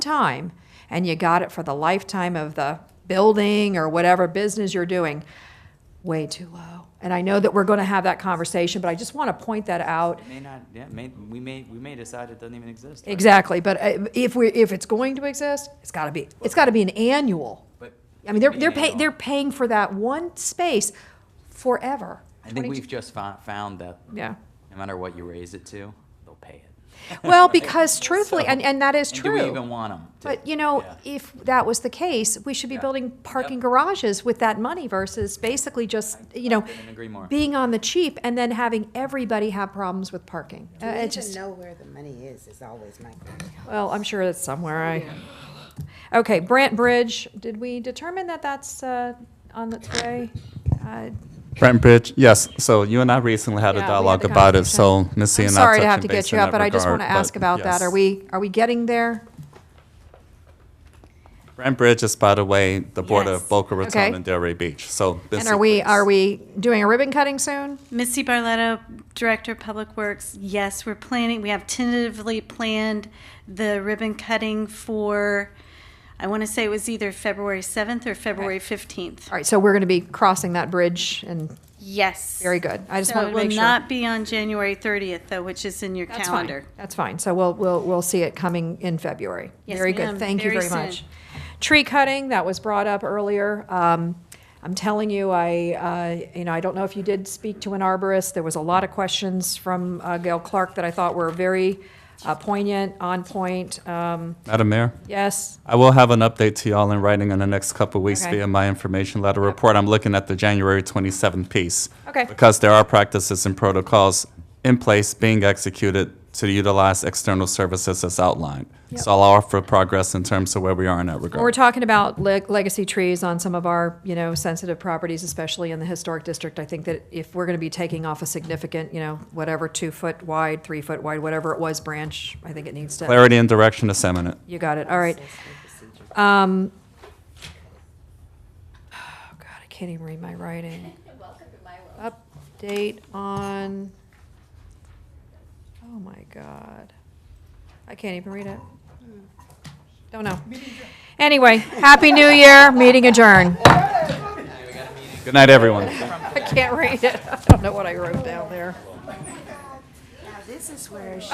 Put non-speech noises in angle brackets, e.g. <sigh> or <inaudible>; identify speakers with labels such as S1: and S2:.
S1: time and you got it for the lifetime of the building or whatever business you're doing, way too low. And I know that we're going to have that conversation, but I just want to point that out.
S2: It May not, yeah, may, we may, we may decide it doesn't even exist. right?
S1: Exactly, but uh, if we, if it's going to exist, it's got to be, it's got to be an annual.
S2: But-
S1: I mean, they're,
S2: Be
S1: they're
S2: an
S1: paying,
S2: annual.
S1: they're paying for that one space forever.
S2: I think
S1: 22
S2: we've just fou- found that
S1: Yeah.
S2: no matter what you raise it to, they'll pay it.
S1: <laughs>
S2: <laughs>
S1: Well, because truthfully,
S2: So-
S1: and, and that is
S2: And
S1: true.
S2: do we even want them?
S1: But, you know,
S2: Yeah.
S1: if that was the case, we should be
S2: Yeah.
S1: building parking
S2: Yep.
S1: garages with that money versus basically just, you know,
S2: couldn't agree more.
S1: being on the cheap and then having everybody have problems with parking. Uh,
S3: We
S1: it
S3: need
S1: just-
S3: to know where the money is, is always my question.
S1: well, I'm sure it's somewhere, I. Okay, Brant Bridge, did we determine that that's, uh, on its way? Uh,
S4: Brent Bridge, yes. So you and I recently
S1: Yeah,
S4: had
S1: we
S4: a
S1: had
S4: dialogue
S1: the
S4: about it, so
S1: conversation.
S4: Missy
S1: I'm
S4: and I
S1: sorry to
S4: touching
S1: have to
S4: base
S1: get you
S4: in
S1: up,
S4: that
S1: but I just
S4: regard,
S1: want to ask
S4: but
S1: about that.
S4: yes.
S1: Are we, are we getting there?
S4: Brent Bridge is, by the way, the border
S5: Yes.
S4: of Boca Raton
S1: Okay.
S4: and Delray Beach. So this
S1: And are we,
S4: is-
S1: are we doing a ribbon cutting soon?
S5: Missy Barletta, Director of Public Works. Yes, we're planning, we have tentatively planned the ribbon cutting for, I want to say it was either February 7th or February 15th.
S1: All right, so we're going to be crossing that bridge and
S5: Yes.
S1: Very good. I just
S5: So
S1: wanted to make
S5: It
S1: sure.
S5: will not be on January 30th, though, which is in your
S1: That's fine.
S5: calendar.
S1: That's fine. So we'll, we'll, we'll see it coming in February.
S5: Yes,
S1: Very good.
S5: ma'am.
S1: Thank you
S5: Very
S1: very much.
S5: soon.
S1: Tree cutting, that was brought up earlier. Um, I'm telling you, I, uh, you know, I don't know if you did speak to an arborist. There was a lot of questions from uh, Gail Clark that I thought were very uh, poignant, on point. Um,
S4: Madam Mayor?
S1: Yes,
S4: I will have an update to y'all in writing in the next couple of weeks
S1: Okay.
S4: via my information letter report. I'm looking at the January 27th piece.
S1: Okay.
S4: Because there are practices and protocols in place being executed to utilize external services as outlined. So I'll offer progress in terms of where we are in that regard.
S1: Well, we're talking about le- legacy trees on some of our, you know, sensitive properties, especially in the historic district. I think that if we're going to be taking off a significant, you know, whatever, two-foot wide, three-foot wide, whatever it was, branch, I think it needs to.
S4: Clarity and direction is eminent.
S1: You got it, all right. Um, Oh, God, I can't even read my writing. Update on, oh my God. I can't even read it. Don't know. Anyway, Happy New Year, meeting adjourned. <laughs>
S4: Good night, everyone.
S1: I can't read it. I don't know what I wrote down there.
S3: Now, this is where